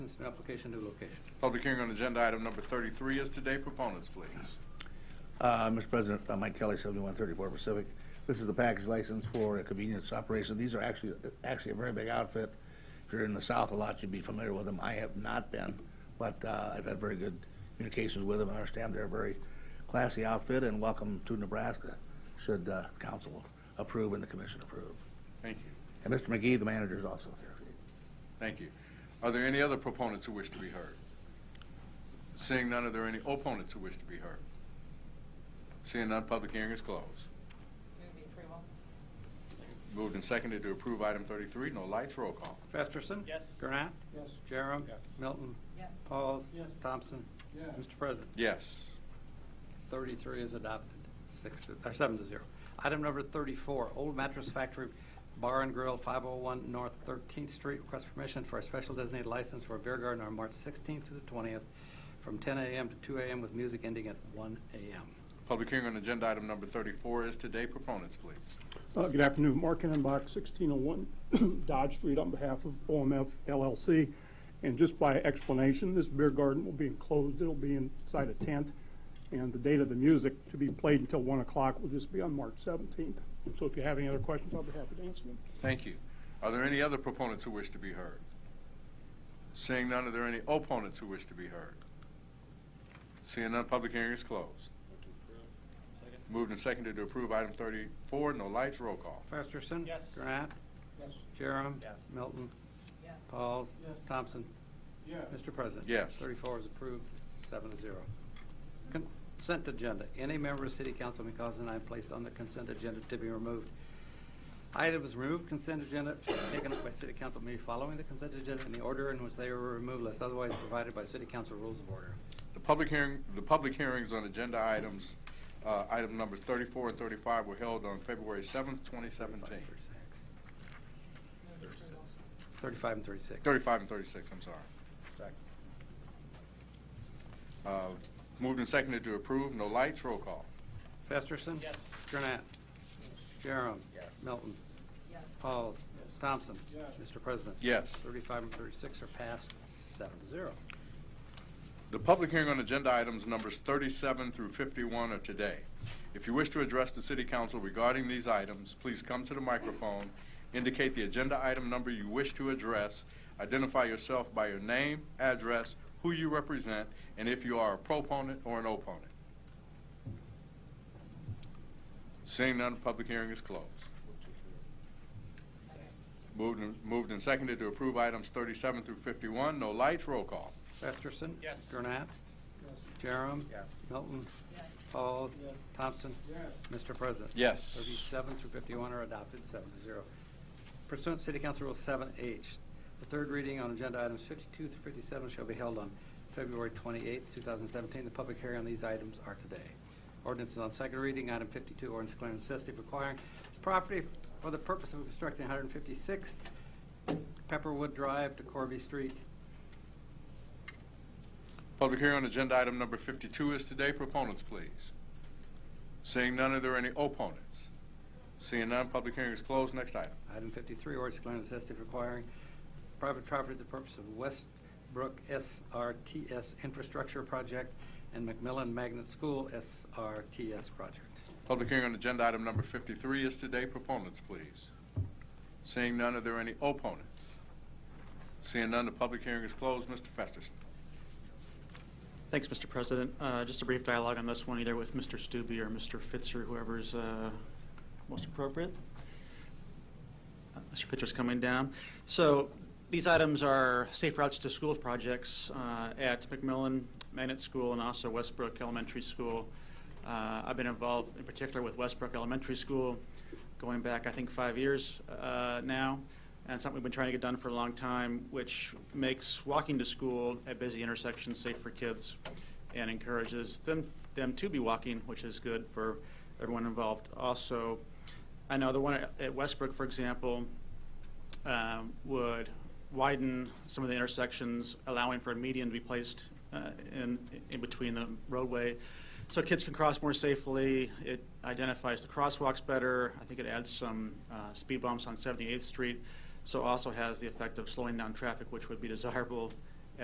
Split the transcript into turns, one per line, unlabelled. It's an application to location.
Public hearing on agenda item number 33 is today. Proponents, please.
Uh, Mr. President, uh, Mike Kelly, 7134 Pacific. This is the package license for a convenience operation. These are actually, actually a very big outfit. If you're in the South a lot, you'd be familiar with them. I have not been, but uh, I've had very good communications with them. I understand they're a very classy outfit and welcome to Nebraska, should uh, council approve and the commission approve.
Thank you.
And Mr. McGee, the manager, is also here.
Thank you. Are there any other proponents who wish to be heard? Seeing none, are there any opponents who wish to be heard? Seeing none, public hearing is closed.
Move the approval.
Moved and seconded to approve item 33. No lights. Roll call.
Festerson.
Yes.
Gurnat.
Yes.
Jerem.
Yes.
Milton.
Yes.
Pauls.
Yes.
Thompson.
Yes.
Mr. President,
Yes.
33 is adopted, six, to- or seven to zero. Item number 34, Old Mattress Factory Bar and Grill, 501 North 13th Street. Request permission for a special designated license for a beer garden on March 16th through the 20th, from 10 a.m. to 2 a.m. with music ending at 1 a.m.
Public hearing on agenda item number 34 is today. Proponents, please.
Uh, Good afternoon, Mark Box 1601 Dodge Street on behalf of OMF LLC. And just by explanation, this beer garden will be enclosed, it'll be inside a tent, and the date of the music to be played until 1 o'clock will just be on March 17th. So if you have any other questions, I'll be happy to answer them.
Thank you. Are there any other proponents who wish to be heard? Seeing none, are there any opponents who wish to be heard? Seeing none, public hearing is closed.
Second.
Moved and seconded to approve item 34, no lights, roll call.
Festerson.
Yes.
Gurnat.
Yes.
Jerem.
Yes.
Milton.
Yes.
Pauls.
Yes.
Thompson.
Yes.
Mr. President?
Yes.
34 is approved, seven to zero. Consent agenda. Any member of City Council may cause an item placed on the consent agenda to be removed. Items removed consent agenda shall be taken up by City Council meeting following the consent agenda in the order in which they were removed unless otherwise provided by City Council rules of order.
The public hearing, the public hearings on agenda items, uh, item numbers 34 and 35 were held on February 7th, 2017.
35 and 36.
35 and 36, I'm sorry.
Second.
Uh, Moved and seconded to approve, no lights, roll call.
Festerson?
Yes.
Gurnett? Jerem?
Yes.
Milton?
Yes.
Pauls? Thompson?
Yes.
Mr. President?
Yes.
35 and 36 are passed, seven to zero.
The public hearing on agenda items numbers 37 through 51 are today. If you wish to address the city council regarding these items, please come to the microphone, indicate the agenda item number you wish to address, identify yourself by your name, address, who you represent, and if you are a proponent or an opponent. Seeing none, public hearing is closed. Moved and- Moved and seconded to approve items 37 through 51. No lights, roll call.
Festerson.
Yes.
Gurnett. Jerem.
Yes.
Milton.
Yes.
Pauls.
Yes.
Thompson. Mr. President.
Yes.
37 through 51 are adopted, seven to zero. Pursuant to City Council Rule 7H, the third reading on agenda items 52 through 57 shall be held on February 28, 2017. The public hearing on these items are today. Ordinance is on second reading, item 52, ordinance declaring necessity of acquiring property for the purpose of constructing 156th Pepperwood Drive to Corby Street.
Public hearing on agenda item number 52 is today. Proponents, please. Seeing none, are there any opponents? Seeing none, public hearing is closed. Next item.
Item 53, ordinance declaring necessity of requiring private property for the purpose of Westbrook SRTS Infrastructure Project and McMillan Magnet School SRTS Project.
Public hearing on agenda item number 53 is today. Proponents, please. Seeing none, are there any opponents? Seeing none, the public hearing is closed. Mr. Festerson.
Thanks, Mr. President. Uh, Just a brief dialogue on this one, either with Mr. Stube or Mr. Fitz or whoever's uh, most appropriate. Uh, Mr. Fitcher's coming down. So these items are safe routes to school projects uh, at McMillan Magnet School and also Westbrook Elementary School. Uh, I've been involved in particular with Westbrook Elementary School going back, I think, five years uh, now, and something we've been trying to get done for a long time, which makes walking to school at busy intersections safe for kids and encourages them, them to be walking, which is good for everyone involved. Also, I know the one at- at Westbrook, for example, um, would widen some of the intersections, allowing for a median to be placed uh, in, in between the roadway. So kids can cross more safely. It identifies the crosswalks better. I think it adds some uh, speed bumps on 78th Street. So also has the effect of slowing down traffic, which would be desirable